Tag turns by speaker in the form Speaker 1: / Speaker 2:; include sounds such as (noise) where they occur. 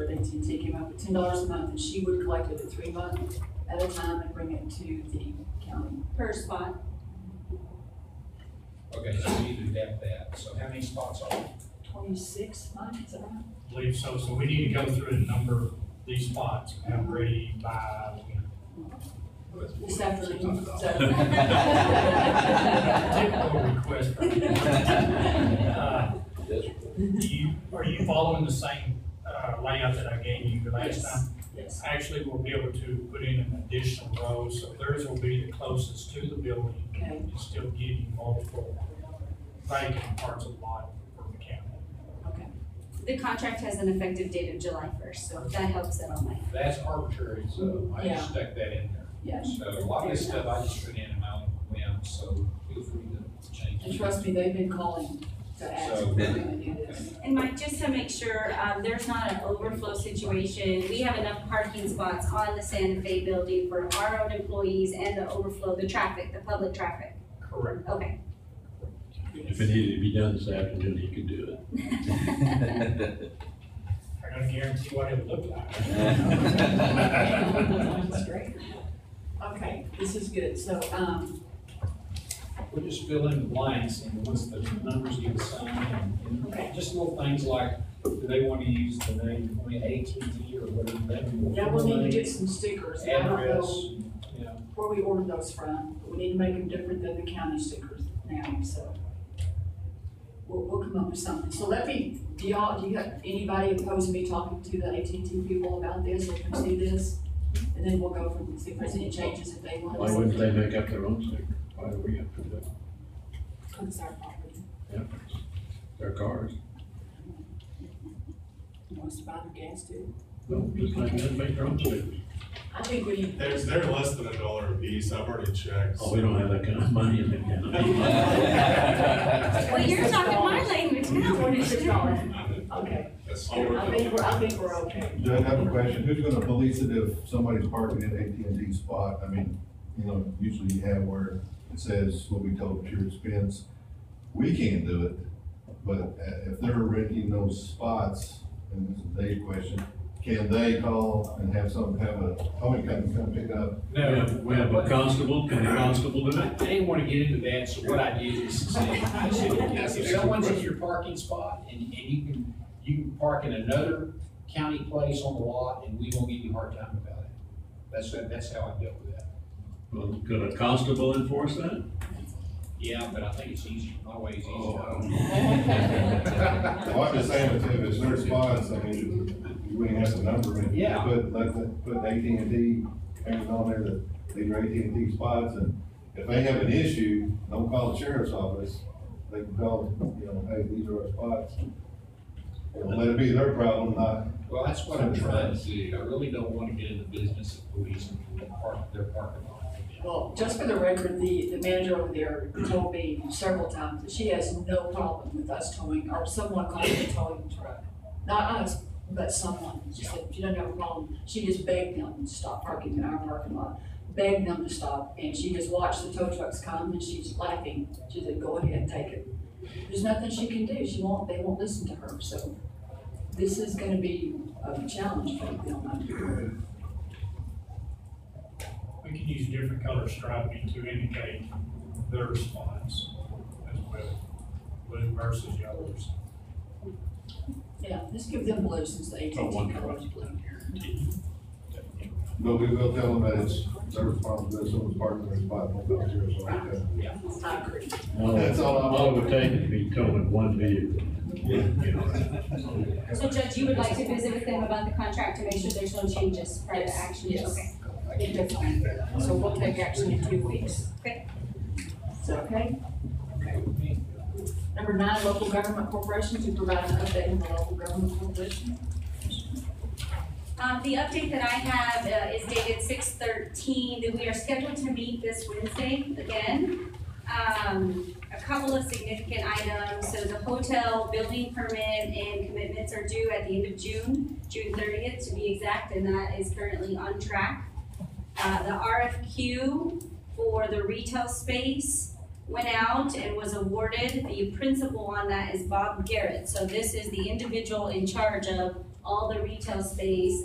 Speaker 1: NTT came up with ten dollars a month, and she would collect it at three months at a time and bring it to the county per spot.
Speaker 2: Okay, so we need to adapt that. So how many spots are there?
Speaker 1: Twenty-six months, around.
Speaker 3: believe so, so we need to go through and number these spots, and have ready by, you know,
Speaker 1: This afternoon, (laughs)
Speaker 3: typical
Speaker 1: (laughs)
Speaker 3: request. Uh, do you, are you following the same, uh, layout that I gave you the last
Speaker 1: Yes.
Speaker 3: time?
Speaker 1: Yes,
Speaker 3: Actually, we'll be able to put in an additional row, so theirs will be the closest to the building,
Speaker 1: okay,
Speaker 3: and still give you multiple vacant parts of the lot for the county.
Speaker 1: okay.
Speaker 4: The contract has an effective date of July first, so if that helps at all, Mike.
Speaker 2: That's arbitrary, so I
Speaker 1: Yeah.
Speaker 2: just stuck that in there.
Speaker 1: Yeah,
Speaker 2: So a lot of this stuff I just put in in my own whim, so feel free to change
Speaker 1: and
Speaker 2: it.
Speaker 1: trust me, they've been calling to ask if we're gonna do this.
Speaker 4: And Mike, just to make sure, um, there's not an overflow situation, we have enough parking spots on the Santa Fe building for our own employees and the overflow, the traffic, the public traffic.
Speaker 3: Correct.
Speaker 4: Okay. (laughs)
Speaker 5: If it needed to be done this afternoon, he could do it.
Speaker 3: I don't guarantee what it would look like.
Speaker 1: That's great. Okay, this is good, so, um,
Speaker 2: We'll just fill in the blanks and once the numbers get assigned and, and just little things like, do they want to use the name, I mean, AT&T or whatever that is.
Speaker 1: yeah, we'll need to get some stickers. I don't
Speaker 2: Address,
Speaker 1: know
Speaker 2: you know,
Speaker 1: where we ordered those from, but we need to make them different than the county stickers now, so. We'll, we'll come up with something, so let me, do y'all, do you have, anybody opposed to me talking to the AT&T people about this, or can see this? And then we'll go from, see if there's any changes if they want.
Speaker 5: Why wouldn't they make up their own sticker? Why do we have to do it?
Speaker 1: It's our property,
Speaker 5: Yeah. Their cars.
Speaker 1: Who wants to buy their gas too.
Speaker 5: No, just like that, make their own stickers.
Speaker 1: I think we need.
Speaker 6: There's, they're less than a dollar a piece, I've
Speaker 5: (laughs)
Speaker 6: already checked.
Speaker 5: Oh, we don't have that kind of money in the county.
Speaker 4: Well, you're talking my language now.
Speaker 1: Twenty-six dollars, okay,
Speaker 6: That's all we're
Speaker 1: I
Speaker 6: doing.
Speaker 1: think we're, I think we're okay.
Speaker 7: Do I have a question? Who's gonna police it if somebody's parking at AT&T spot? I mean, you know, usually you have where it says, will be told at your expense. We can't do it, but uh, if they're renting those spots, and this is Dave's question, can they call and have some, have a, oh, we come, come pick up?
Speaker 5: We have, we have a constable, can a constable do
Speaker 2: I
Speaker 5: it?
Speaker 2: didn't want to get into that, so what I did is say, I said, yes, if someone's in your parking spot and, and you can, you can park in another county place on the lot and we won't give you a hard time about it. That's, that's how I dealt with that.
Speaker 5: Well, could a constable enforce that?
Speaker 2: Yeah, but I think it's easier, my way is
Speaker 5: Oh,
Speaker 2: easier.
Speaker 7: Well, Oh, I'm just saying, if it's their spots, I mean, you wouldn't have to number it.
Speaker 2: Yeah.
Speaker 7: Put, like, put AT&T, everything on there that these are AT&T spots, and if they have an issue, don't call the sheriff's office. They can call, you know, hey, these are our spots. And let it be their problem, not,
Speaker 2: Well, that's what I'm trying to do. I really don't want to get in the business of policing their park, their parking lot.
Speaker 1: Well, just for the record, the, the manager over there told me several times that she has no problem with us towing, or someone calling a towing truck. Not us, but someone, she said, she doesn't have a problem, she just begged them to stop parking in our parking lot, begged them to stop, and she just watched the tow trucks come, and she's laughing, she said, go ahead, take it. There's nothing she can do, she won't, they won't listen to her, so this is gonna be a challenge for them, I'm sure.
Speaker 3: We can use different color striping to indicate their spots as well, blue versus yellows.
Speaker 1: Yeah, let's give them blue since the AT&T
Speaker 5: Oh, one
Speaker 1: colors blue.
Speaker 7: but we will tell them that it's their responsibility, someone's parking their spot, don't call the sheriff's office.
Speaker 1: I agree.
Speaker 5: (laughs) No,
Speaker 7: That's all I want.
Speaker 5: All it would take is be towing one vehicle.
Speaker 4: So Judge, you would like to visit with them about the contract to make sure there's no changes prior to action?
Speaker 1: Yes.
Speaker 4: Okay.
Speaker 1: I think that's fine. So we'll take action in two weeks.
Speaker 4: Okay.
Speaker 1: Is that okay? Number nine, local government corporations, to provide an update on the local government corporation.
Speaker 4: Um, the update that I have uh, is dated six thirteen, that we are scheduled to meet this Wednesday again. Um, a couple of significant items, so the hotel building permit and commitments are due at the end of June, June thirtieth to be exact, and that is currently on track. Uh, the RFQ for the retail space went out and was awarded, the principal on that is Bob Garrett, so this is the individual in charge of all the retail space